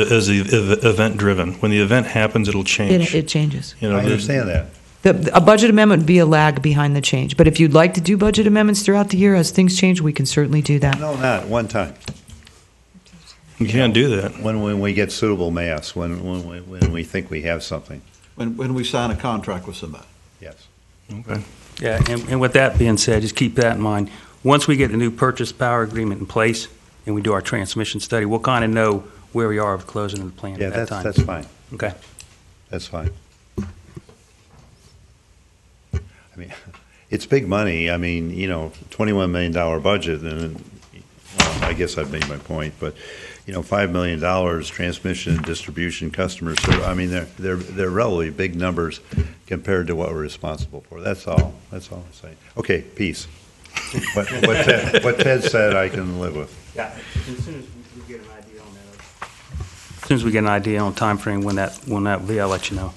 as the ev- event driven. When the event happens, it'll It, change. it changes. You know, I there's- understand that. The, a budget amendment would be a lag behind the change, but if you'd like to do budget amendments throughout the year as things change, we can certainly do that. No, not one time. You can't do that. When, when we get suitable mass, when, when, we- when we think we have something, When, when we sign a contract with somebody. yes. Okay. Yeah, and, and with that being said, just keep that in mind. Once we get the new purchase power agreement in place and we do our transmission study, we'll kind of know where we are with closing the plant Yeah, at that that's, time. that's fine. Okay. That's fine. I mean, it's big money. I mean, you know, $21 million budget, and well, I guess I've made my point, but, you know, $5 million transmission, distribution, customer service, I mean, they're, they're, they're relatively big numbers compared to what we're responsible for. That's all. That's all I'm saying. Okay, peace. What what Ted what Ted said, I can live with. Yeah, as soon as we get an idea on that. As soon as we get an idea on timeframe when that, when that will be, I'll let you know.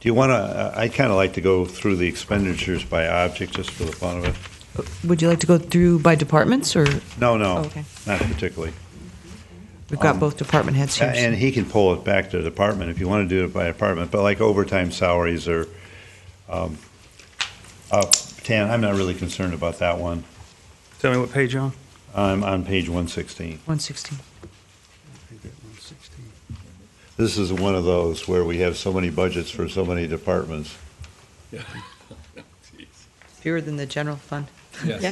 Do you want to, I'd kind of like to go through the expenditures by object, just for the fun of it. Would you like to go through by departments, or No, no. Oh, okay. Not particularly. we've got Um, both department heads here? so- And he can pull it back to department if you want to do it by department, but like overtime salaries are um, up. Tan, I'm not really concerned about that one. Tell me what page you're on? I'm on page 116. 116. This is one of those where we have so many budgets for so many departments. Fewer than the general fund. Yes.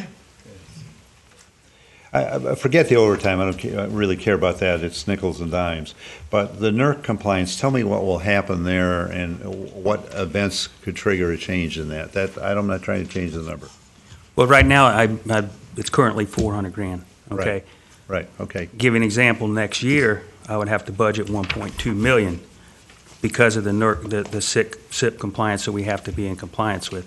I- I I forget the overtime, I don't ca- I don't really care about that, it's nickels and dimes. But the NERC compliance, tell me what will happen there and what events could trigger a change in that. That, I'm not trying to change the number. Well, right now, I, I, it's currently four hundred grand, Right. okay? Right, okay. Give you an example, next year, I would have to budget one point two million because of the NERC, the, the SIP, SIP compliance that we have to be in compliance with.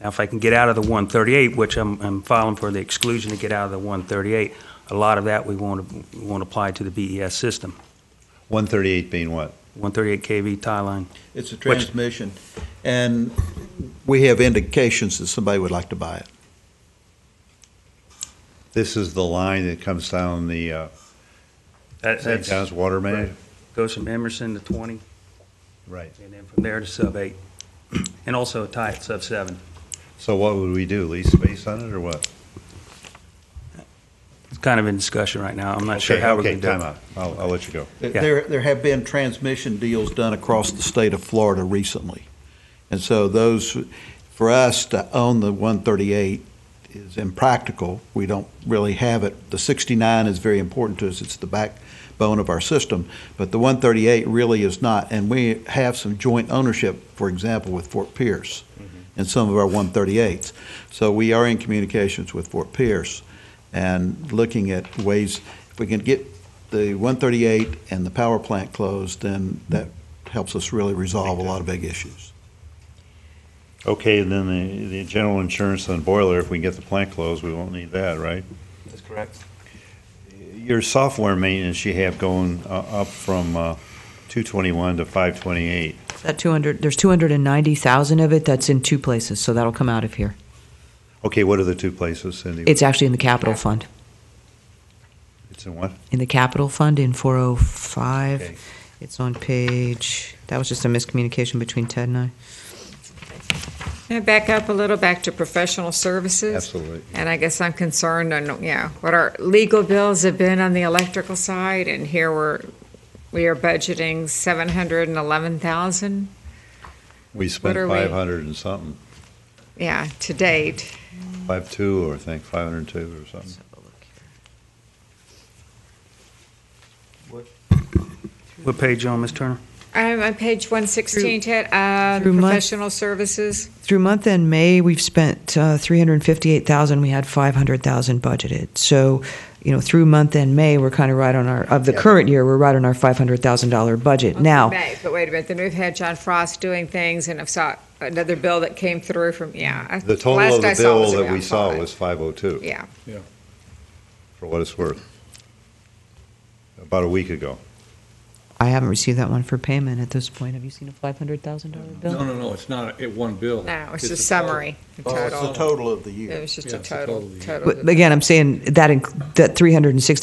Now, if I can get out of the one thirty-eight, which I'm, I'm filing for the exclusion to get out of the one thirty-eight, a lot of that we won't, won't apply to the BES system. 138 being what? One thirty-eight KV tie line. It's a Which- transmission, and we have indications that somebody would like to buy it. This is the line that comes down the, uh, St. John's Water Main? Goes from Emerson to twenty, Right. and then from there to sub eight, and also a tie at sub seven. So what would we do, lease space on it or what? It's kind of in discussion right now. I'm not sure how we're Okay, going to do it. Okay, time out, I'll, I'll let you go. Yeah. There, there have been transmission deals done across the state of Florida recently. And so those, for us to own the 138 is impractical. We don't really have it. The 69 is very important to us. It's the backbone of our system. But the 138 really is not. And we have some joint ownership, for example, with Fort Pierce and some of our 138s. So we are in communications with Fort Pierce and looking at ways, if we can get the 138 and the power plant closed, then that helps us really resolve a lot of big issues. Okay, and then the, the general insurance on boiler, if we can get the plant closed, we won't need that, right? That's correct. Your software maintenance you have going uh, up from uh, 221 to 528. That 200, there's 290,000 of it that's in two places, so that'll come out of here. Okay, what are the two places, Cindy? It's actually in the capital fund. It's in what? In the capital fund in Okay. 405, it's on page, that was just a miscommunication between Ted and I. Can I back up a little, back to professional services? Absolutely. And I guess I'm concerned on, yeah, what our legal bills have been on the electrical side, and here we're, we are budgeting seven hundred and eleven thousand, We spent are we- 500 and something, yeah, to date. 52 or I think 502 or something. What page you on, Ms. Turner? I'm on page one sixteen, Ted, uh, Through month- professional services. Through month end May, we've spent uh, 358,000, we had 500,000 budgeted. So, you know, through month end May, we're kind of right on our, of the Yeah. current year, we're right on our $500,000 budget. Okay, Now, May, But wait a minute, then we've had John Frost doing things, and I've saw another bill that came through from, yeah. I- The total last of I the saw bill was that around we saw five. was 502, Yeah, for what it's worth, about a week ago. I haven't received that one for payment at this point. Have you seen a $500,000 bill? No, no, no, it's not a- it one bill. no, it's a a summary, the Oh, it's total. the total of the year. It was just Yeah, a it's the total, total, yeah. total. But again, I'm saying that, inc- that 360